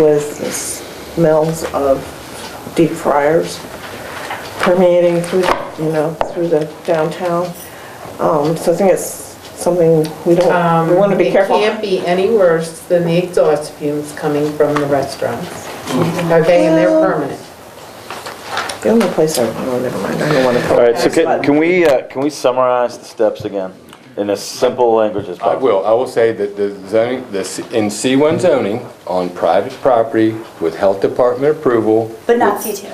with the smells of deep fryers permeating through, you know, through the downtown. Um, So I think it's something we don't, Um, we want to be careful. It can't be any worse than the exhaust fumes coming from the restaurants. Mm-hmm. Okay, and they're permanent. The only place I, oh, never mind, I don't want to. All right, so can, can we, uh, can we summarize the steps again in as simple language as I possible? will, I will say that the zoning, the C- in C1 zoning, on private property with health department approval, But not C2.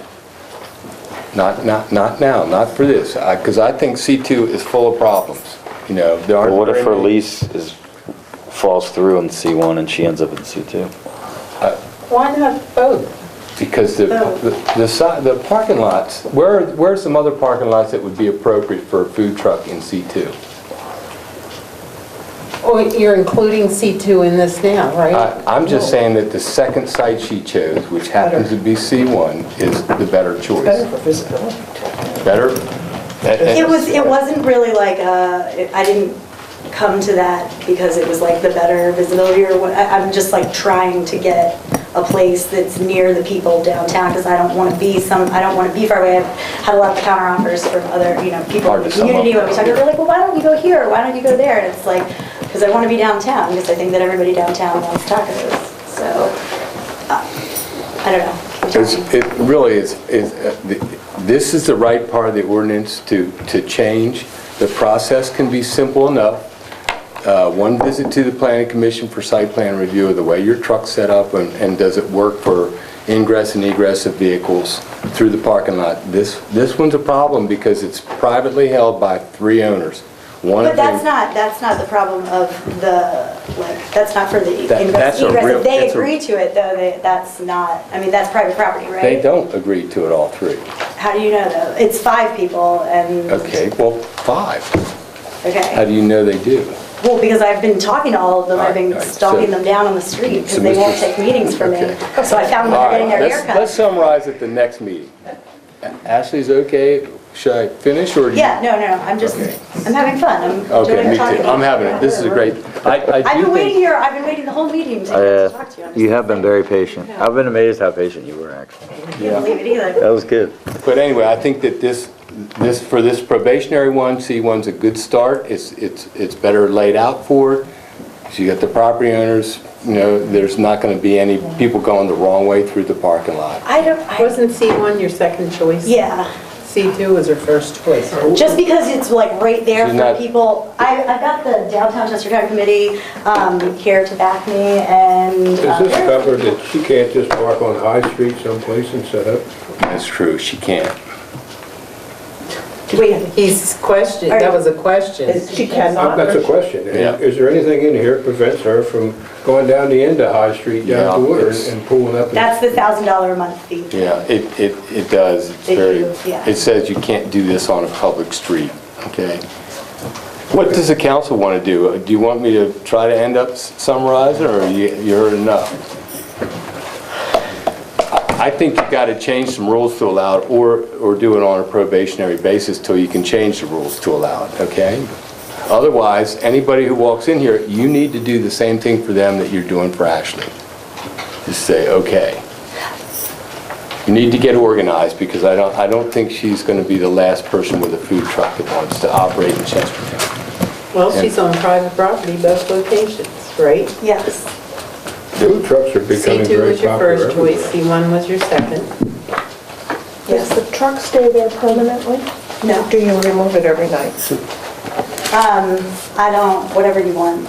not, not, not now, not for this, because I think C2 is full of problems, you know, there aren't. Well, what if her very many- lease is, falls through in C1 and she ends up in C2? Why not both? Because the, Oh. the- the, si- the parking lots, where, where are some other parking lots that would be appropriate for a food truck in C2? Oh, you're including C2 in this now, Uh, right? I- I'm Oh. just saying that the second site she chose, which happens to be C1, is the better choice. Better for visibility. Better? It was, it wasn't really like, uh, it- I didn't come to that because it was like the better visibility or what, I- I'm just like trying to get a place that's near the people downtown because I don't want to be some, I don't want to be far away. I've had a lot of counter offers from other, you know, people in Hard the to sum up. community when we talk, they're like, well, why don't you go here? Why don't you go there? And it's like, because I want to be downtown because I think that everybody downtown wants tacos. So, uh, I don't know. You tell It's- me. It really is, is, uh, th- this is the right part of the ordinance to, to change. The process can be simple enough. Uh, One visit to the planning commission for site plan review of the way your truck's set up and, and does it work for ingress and egress of vehicles through the parking lot. This, this one's a problem because it's privately held by three owners. One But of them- that's not, that's not the problem of the, like, that's not for the That- ingress that's a egress. real- If they that's a- agree to it, though, they, that's not, I mean, that's private property, right? They don't agree to it, all three. How do you know, though? It's five people and, Okay, well, five. How do okay. you know they do? Well, because I've been talking to all of them, I've All been right, all right, stalking so- them down on the street so because they won't Mr. take meetings from me. Okay. So I found them All right, getting their let's- haircut. Let's summarize at the next meeting. Ashley's okay, should I finish or? do you- Yeah, no, no, no, I'm just, Okay. I'm having fun. I'm Okay, enjoying me talking too, to I'm you. having it, this is a great, uh, I, I do think. I've been waiting here, I've been waiting the whole meeting to to talk to you. I'm just- Uh, You have been very patient. I've been amazed how patient you were, actually. I can't believe it either. That was good. But anyway, I think that this, this, for this probationary one, C1's a good start. It's, it's, it's better laid out for it. So you got the property owners, you know, there's not gonna be any people going the wrong way through the parking lot. I don't, I, Wasn't C1 your second choice? yeah. C2 was her first choice. Just because it's like right there She's for not- people, I, I've got the downtown Chester County Committee um, here to back me and. Is um, this covered that she can't just park on High Street someplace and set up? That's true, she can't. Wait, He's questioned, that was a question. She cannot. That's a or- question. Yeah. Is there anything in here that prevents her from going down the end of High Street, down Yeah, to Woodard it's- and pulling up? and- That's the thousand dollar a month fee. Yeah, it, it, it does, it's It very, is, yeah. it says you can't do this on a public street, okay? What does the council want to do? Uh, Do you want me to try to end up s- summarizing, or you, you heard enough? I I think you got to change some rules to allow it, or, or do it on a probationary basis till you can change the rules to allow it, okay? Otherwise, anybody who walks in here, you need to do the same thing for them that you're doing for Ashley. Just say, okay. You need to get organized, because I don't, I don't think she's gonna be the last person with a food truck that wants to operate in Chester County. Well, she's on private property, both locations, right? Yes. Food trucks are becoming C2 very was your popular first choice, everywhere. C1 was your second. Does the truck stay there permanently? No. Do you remove it every night? Um, I don't, whatever you want.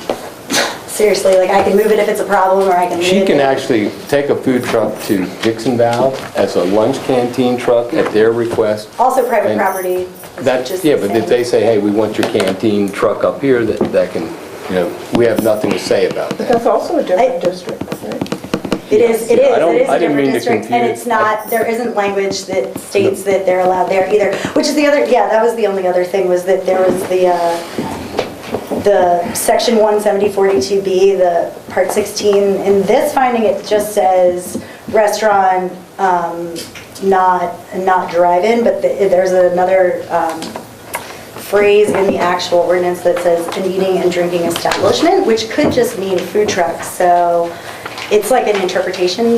Seriously, like I can move it if it's a problem or I can leave it. She can actually take a food truck to Dixon Valve as a lunch canteen truck at their request. Also private and property. That, Just yeah, the but same. if they say, hey, we want your canteen truck up here, that, that can, you know, we have nothing to say about that. That's also a different I- district, right? It is, it Yeah, I is, don't- it is I a didn't mean different to district, and confuse- it's not, there isn't language that states that they're allowed there either, which is the other, yeah, that was the only other thing, was that there was the, uh, the section 17042B, the part 16, in this finding, it just says restaurant, um, not, not drive-in, but the- there's another um, phrase in the actual ordinance that says an eating and drinking establishment, which could just mean food truck, so it's like an interpretation